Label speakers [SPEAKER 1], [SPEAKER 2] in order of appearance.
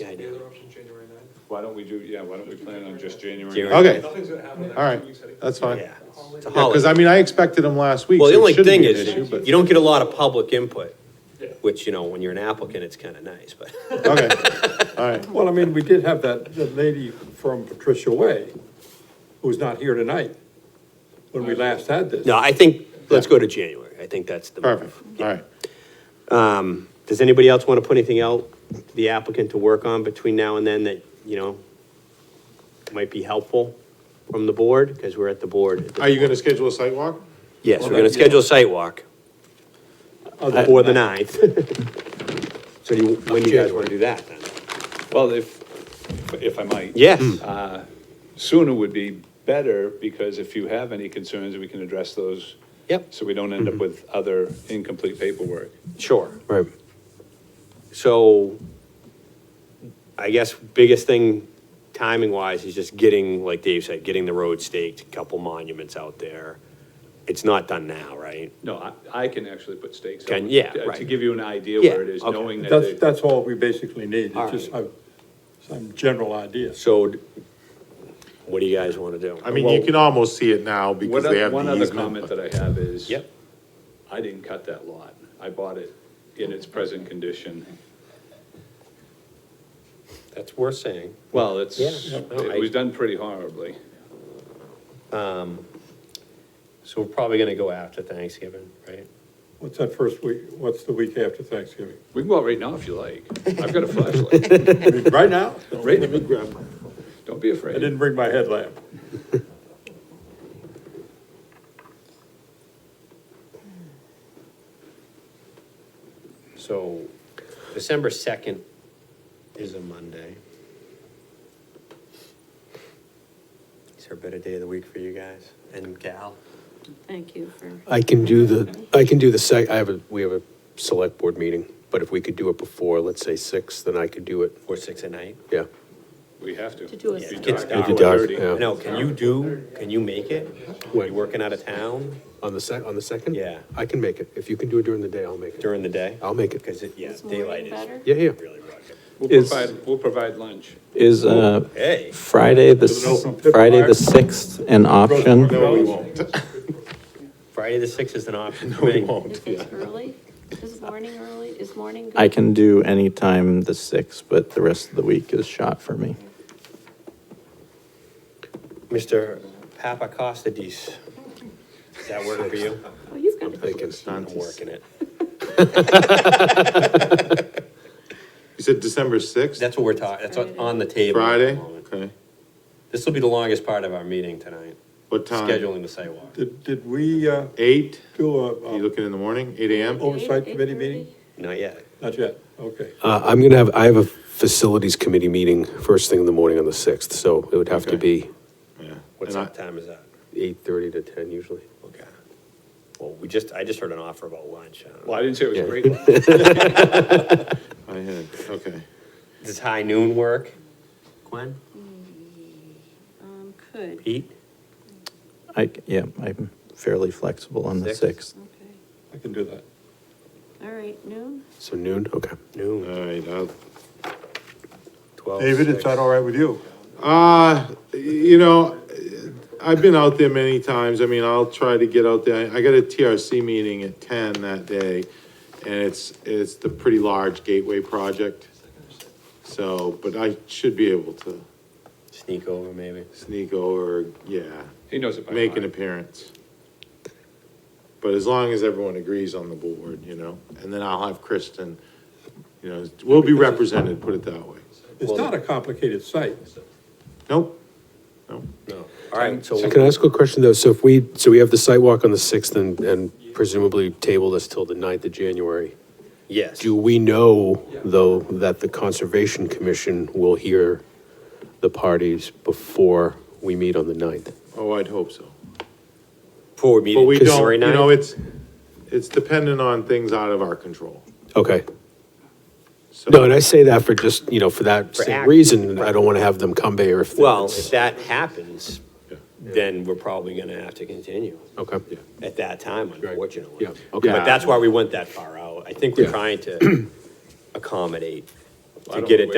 [SPEAKER 1] Yeah, I
[SPEAKER 2] The
[SPEAKER 1] do.
[SPEAKER 2] other option, January ninth.
[SPEAKER 3] Why don't we do, yeah, why don't we plan on just January?
[SPEAKER 1] January.
[SPEAKER 4] Okay, all
[SPEAKER 2] Nothing's gonna happen. in the next
[SPEAKER 4] right,
[SPEAKER 2] two weeks anyway.
[SPEAKER 4] that's fine.
[SPEAKER 1] Yeah,
[SPEAKER 4] Yeah,
[SPEAKER 1] it's a
[SPEAKER 4] because I
[SPEAKER 1] holiday.
[SPEAKER 4] mean, I expected them last week.
[SPEAKER 1] Well, the
[SPEAKER 4] so it
[SPEAKER 1] only
[SPEAKER 4] shouldn't
[SPEAKER 1] thing
[SPEAKER 4] be an
[SPEAKER 1] is,
[SPEAKER 4] issue, but-
[SPEAKER 1] you don't get a lot of public input,
[SPEAKER 2] Yeah.
[SPEAKER 1] which, you know, when you're an applicant, it's kind of nice, but.
[SPEAKER 4] Okay, all right,
[SPEAKER 5] Well, I mean, we did have that, that lady from Patricia Way, who's not here tonight, when we last had this.
[SPEAKER 1] No, I think, let's go to January. I think that's the. move.
[SPEAKER 4] perfect, all right.
[SPEAKER 1] Does anybody else want to put anything out, the applicant to work on between now and then that, you know, might be helpful from the board? Because we're at the board. at the-
[SPEAKER 4] Are you gonna schedule a site walk?
[SPEAKER 1] Yes, we're going to schedule a site walk
[SPEAKER 4] Oh,
[SPEAKER 1] for the ninth. So do you, when do you guys want to do that then?
[SPEAKER 3] Well, if, if I might.
[SPEAKER 1] Yes,
[SPEAKER 4] Hmm.
[SPEAKER 1] Uh,
[SPEAKER 3] Sooner would be better, because if you have any concerns, we can address those.
[SPEAKER 1] Yep.
[SPEAKER 3] So we don't end up with other incomplete paperwork.
[SPEAKER 1] sure. Right. So I guess biggest thing timing wise is just getting, like Dave said, getting the road staked, a couple monuments out there. It's not done now, right?
[SPEAKER 3] No, I, I can actually put stakes. out,
[SPEAKER 1] Can- yeah,
[SPEAKER 3] to- To
[SPEAKER 1] right.
[SPEAKER 3] give you an idea
[SPEAKER 1] Yeah,
[SPEAKER 3] where it is,
[SPEAKER 1] okay.
[SPEAKER 3] knowing that.
[SPEAKER 5] That's,
[SPEAKER 3] they-
[SPEAKER 5] that's all we basically need,
[SPEAKER 1] All
[SPEAKER 5] it's just
[SPEAKER 1] right.
[SPEAKER 5] a- some general ideas.
[SPEAKER 1] So d- what do you guys want to do?
[SPEAKER 4] I mean, you can almost see it now
[SPEAKER 3] One
[SPEAKER 4] because they
[SPEAKER 3] oth-
[SPEAKER 4] have
[SPEAKER 3] One
[SPEAKER 4] the
[SPEAKER 3] other
[SPEAKER 4] easement.
[SPEAKER 3] comment
[SPEAKER 4] but-
[SPEAKER 3] that I have is.
[SPEAKER 1] Yep.
[SPEAKER 3] I didn't cut that lot. I bought it in its present condition.
[SPEAKER 1] That's worth saying.
[SPEAKER 3] Well, it's,
[SPEAKER 1] Yeah, no, I-
[SPEAKER 3] it was done pretty horribly.
[SPEAKER 1] So we're probably going to go after Thanksgiving, right?
[SPEAKER 5] What's that first week, what's the week after Thanksgiving?
[SPEAKER 3] We can go out right now if you like. I've got a flashlight.
[SPEAKER 5] I mean, Right now?
[SPEAKER 3] Right.
[SPEAKER 5] Let me grab my,
[SPEAKER 3] Don't be
[SPEAKER 5] I
[SPEAKER 3] afraid.
[SPEAKER 5] didn't bring my headlamp.
[SPEAKER 1] So December 2nd is a Monday. Is there a better day of the week for you guys and gal?
[SPEAKER 6] Thank you for,
[SPEAKER 7] I can do the, I can do the sec, I have a, we have a select board meeting, but if we could do it before, let's say six, then I could do it,
[SPEAKER 1] Or six at night?
[SPEAKER 7] yeah.
[SPEAKER 3] We have to.
[SPEAKER 6] To do a
[SPEAKER 3] It'd be
[SPEAKER 1] It's
[SPEAKER 3] dark,
[SPEAKER 1] dark.
[SPEAKER 3] hour
[SPEAKER 7] Dark,
[SPEAKER 3] 30.
[SPEAKER 7] yeah.
[SPEAKER 1] No, can you do, can you make it?
[SPEAKER 7] When?
[SPEAKER 1] You working out of town
[SPEAKER 7] On the sec, on the second?
[SPEAKER 1] Yeah.
[SPEAKER 7] I can make it, if you can do it during the day, I'll make it,
[SPEAKER 1] during the day?
[SPEAKER 7] I'll make it,
[SPEAKER 1] Because it, yeah,
[SPEAKER 6] Is morning
[SPEAKER 1] daylight
[SPEAKER 6] better?
[SPEAKER 1] is
[SPEAKER 7] yeah, yeah.
[SPEAKER 1] really rough.
[SPEAKER 3] We'll
[SPEAKER 8] Is-
[SPEAKER 3] provide, we'll provide lunch.
[SPEAKER 8] Is uh,
[SPEAKER 1] Hey.
[SPEAKER 8] Friday, the,
[SPEAKER 5] Is it open
[SPEAKER 8] s-
[SPEAKER 5] pit
[SPEAKER 8] Friday
[SPEAKER 5] fire?
[SPEAKER 8] the 6th an option?
[SPEAKER 4] No, we won't.
[SPEAKER 1] Friday the sixth is an option. No,
[SPEAKER 6] if it's early, is morning early, is morning good?
[SPEAKER 8] I can do any time the 6th, but the rest of the week is shot for me.
[SPEAKER 1] Mr. Papakostadis, does that work for you?
[SPEAKER 6] Oh, you've got to.
[SPEAKER 7] Thinking.
[SPEAKER 1] I'm working it.
[SPEAKER 4] You said December sixth,
[SPEAKER 1] That's what we're talking, that's what's on the table. at the
[SPEAKER 4] Friday?
[SPEAKER 1] moment.
[SPEAKER 4] Okay,
[SPEAKER 1] This will be the longest part of our meeting tonight,
[SPEAKER 4] what time?
[SPEAKER 1] scheduling the sidewalk.
[SPEAKER 5] Did, did we, uh,
[SPEAKER 4] Eight,
[SPEAKER 5] do
[SPEAKER 4] Are you
[SPEAKER 5] a, uh,
[SPEAKER 4] looking in the morning, eight AM?
[SPEAKER 1] Oh,
[SPEAKER 5] oversight committee meeting?
[SPEAKER 1] Not yet.
[SPEAKER 5] Not yet, okay.
[SPEAKER 7] Uh, I'm gonna have, I have a facilities committee meeting first thing in the morning on the sixth, so it would have to
[SPEAKER 4] Okay.
[SPEAKER 7] be
[SPEAKER 4] Yeah.
[SPEAKER 1] What's
[SPEAKER 4] And I-
[SPEAKER 1] that time is that?
[SPEAKER 7] eight-thirty to ten usually.
[SPEAKER 1] Okay. Well, we just, I just heard an offer about lunch. I don't know.
[SPEAKER 3] Well, I didn't say it was
[SPEAKER 7] Yeah.
[SPEAKER 3] great lunch.
[SPEAKER 4] I had, okay.
[SPEAKER 1] Does high noon work? Gwen?
[SPEAKER 6] Um, could, okay.
[SPEAKER 1] Pete?
[SPEAKER 8] I, c- yeah, I'm fairly flexible on the
[SPEAKER 1] Six?
[SPEAKER 8] 6th.
[SPEAKER 5] I can do that.
[SPEAKER 6] All right, noon?
[SPEAKER 7] So noon, okay.
[SPEAKER 4] All
[SPEAKER 1] Noon,
[SPEAKER 4] right, I'll-
[SPEAKER 1] twelve.
[SPEAKER 5] David, is that all right with you?
[SPEAKER 4] Uh, you know, I've been out there many times. I mean, I'll try to get out there. I got a TRC meeting at ten that day. And it's, it's the pretty large gateway project. So, but I should be able to
[SPEAKER 1] Sneak over maybe.
[SPEAKER 4] sneak over, yeah,
[SPEAKER 3] He knows it by
[SPEAKER 4] make an
[SPEAKER 3] heart.
[SPEAKER 4] appearance. But as long as everyone agrees on the board, you know, and then I'll have Kristen, you know, we'll be represented, put it that way.
[SPEAKER 5] It's not a complicated site.
[SPEAKER 4] Nope, nope.
[SPEAKER 1] No. All right, so
[SPEAKER 7] So can I ask a question though? So if we, so we have the site walk on the sixth and, and presumably table this till the ninth of January.
[SPEAKER 1] Yes.
[SPEAKER 7] Do we know, though, that the Conservation Commission will hear the parties before we meet on the 9th?
[SPEAKER 4] Oh, I'd hope so.
[SPEAKER 1] Before
[SPEAKER 4] But
[SPEAKER 1] meeting
[SPEAKER 4] we don't,
[SPEAKER 1] January
[SPEAKER 4] you know,
[SPEAKER 1] ninth?
[SPEAKER 4] it's, it's dependent on things out of our control.
[SPEAKER 7] Okay.
[SPEAKER 4] So-
[SPEAKER 7] No, and I say that for just, you know, for that
[SPEAKER 1] For
[SPEAKER 7] same
[SPEAKER 1] act-
[SPEAKER 7] reason, I don't want to have them come here if.
[SPEAKER 1] Well,
[SPEAKER 7] it's-
[SPEAKER 1] if that happens,
[SPEAKER 4] Yeah.
[SPEAKER 1] then we're probably gonna have to continue
[SPEAKER 7] Okay.
[SPEAKER 1] at that time, unfortunately.
[SPEAKER 7] Yeah, okay.
[SPEAKER 1] But that's why we went that far out. I think we're
[SPEAKER 7] Yeah.
[SPEAKER 1] trying to accommodate,
[SPEAKER 3] I
[SPEAKER 1] to
[SPEAKER 3] don't
[SPEAKER 1] get it
[SPEAKER 3] wait.